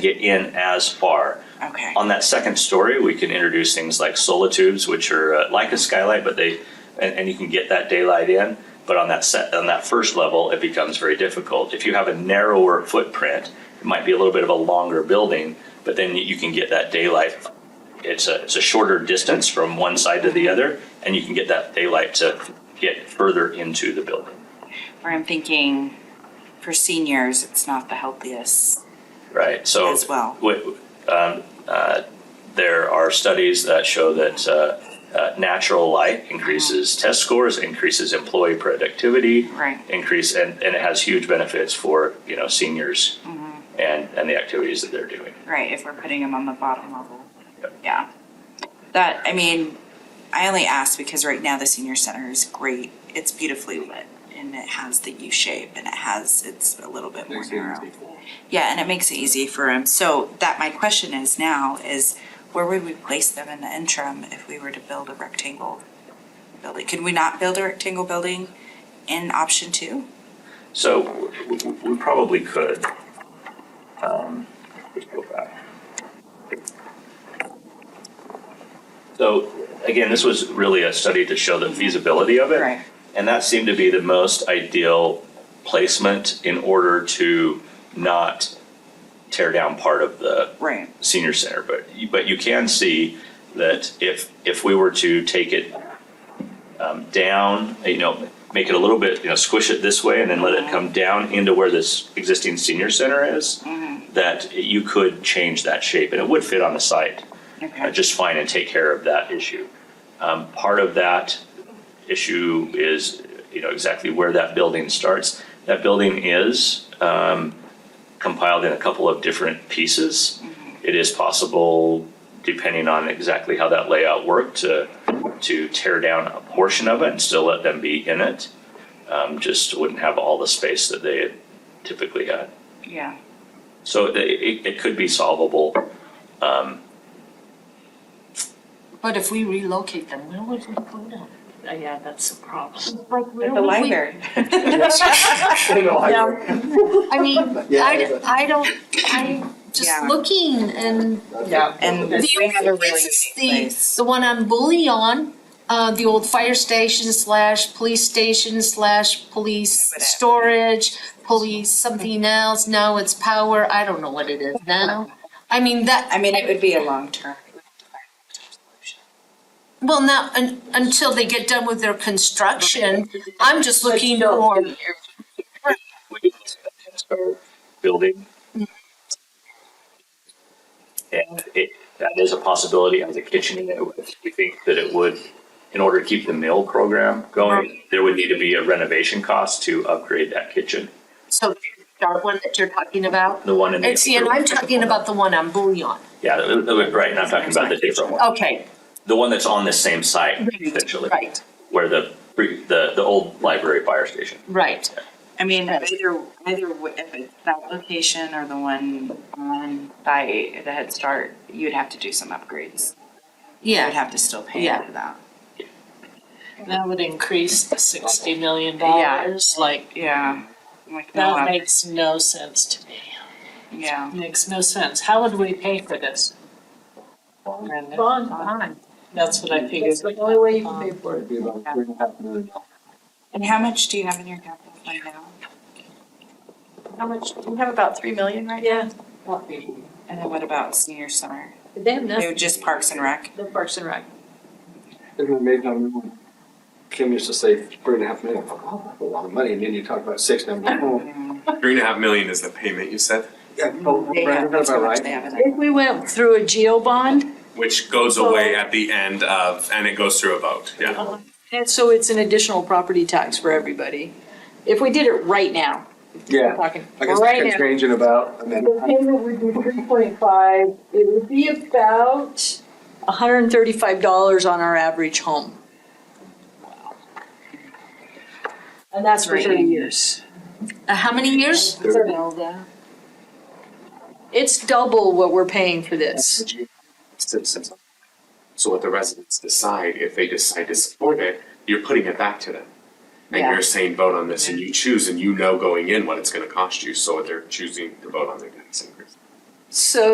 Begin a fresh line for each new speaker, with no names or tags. get in as far.
Okay.
On that second story, we can introduce things like solitubes, which are uh, like a skylight, but they, and, and you can get that daylight in. But on that set, on that first level, it becomes very difficult. If you have a narrower footprint, it might be a little bit of a longer building, but then you can get that daylight. It's a, it's a shorter distance from one side to the other, and you can get that daylight to get further into the building.
Where I'm thinking for seniors, it's not the healthiest.
Right, so.
As well.
wi- um, uh, there are studies that show that, uh, uh, natural light increases test scores, increases employee productivity.
Uh-huh. Right.
Increase, and, and it has huge benefits for, you know, seniors
Mm-hmm.
and, and the activities that they're doing.
Right, if we're putting them on the bottom level. Yeah. That, I mean, I only ask because right now the senior center is great. It's beautifully lit and it has the U shape and it has, it's a little bit more narrow. Yeah, and it makes it easy for them. So that, my question is now is where would we place them in the interim if we were to build a rectangle building? Could we not build a rectangle building in option two?
So w- w- we probably could. Um, let's go back. So again, this was really a study to show the feasibility of it.
Right.
And that seemed to be the most ideal placement in order to not tear down part of the
Right.
senior center. But, you- but you can see that if, if we were to take it um, down, you know, make it a little bit, you know, squish it this way and then let it come down into where this existing senior center is, that you could change that shape and it would fit on the site uh,
Okay.
just fine and take care of that issue. Um, part of that issue is, you know, exactly where that building starts. That building is um, compiled in a couple of different pieces. It is possible, depending on exactly how that layout worked, to to tear down a portion of it and still let them be in it. Um, just wouldn't have all the space that they had typically had.
Yeah.
So it, it, it could be solvable. Um,
But if we relocate them, where would we put them? Uh, Yeah, that's a problem.
Like where
At the
would we-
library.
Yeah.
I mean,
Yeah,
I,
but-
I don't, I'm just
Yeah.
looking and
Yeah.
And
the
we have a
only
really
place is
unique
the,
place.
the one on Bullion, uh, the old fire station slash police station slash police
Whatever.
storage, police something else, now it's power, I don't know what it is now. I mean, that,
I mean, it would be a long term.
well, now, un- until they get done with their construction, I'm just looking for,
building. And it, that is a possibility as a kitchen unit. We think that it would, in order to keep the mill program going, there would need to be a renovation cost to upgrade that kitchen.
so that one that you're talking about.
The one in the.
And see, and I'm talking about the one on Bullion.
Yeah, that- that- right, and I'm talking about the different one.
Okay,
The one that's on the same site essentially.
Oh. right,
Where the, pre- the, the old library fire station.
right.
I mean, either, either w- if it's that location or the one on by the Head Start, you would have to do some upgrades. You would
Yeah,
have to still pay
Yeah.
for that.
That would increase the sixty million
Yeah.
dollars, like,
Yeah. Like, no,
that
I'm-
makes no sense to me.
yeah.
Makes no sense. How would we pay for this? Brenda?
bond.
That's what I figured.
It's the only way you can pay for it.
And how much do you have in your capital fund now?
How much?
You have about three million right
Yeah.
And then what about senior summer?
They have
They
nothing.
were just Parks and Rec?
The Parks and Rec.
Isn't it amazing how everyone- Kim used to say three and a half million, I'm like, oh, that's a lot of money, and then you talk about six, and I'm like, oh,
Three and a half million is the payment you said,
yeah, oh,
They have-
Brandon, that's
how
about
much
right.
they have in it.
If we went through a geo bond,
which goes away at the end of, and it goes through a vote, yeah.
and so it's an additional property tax for everybody. If we did it right now, I'm
Yeah,
talking
I guess that
right
kept
now.
changing about, and
The
then,
payment would be three point five, it would be about hundred and thirty-five dollars on our average home. And that's for
Right.
thirty years.
Uh, how many years?
It's double what we're paying for this.
Citizens. So what the residents decide, if they decide to support it, you're putting it back to them. And
Yeah.
you're saying vote on this and you choose and you know going in what it's gonna cost you, so they're choosing to vote on their tax increase.
So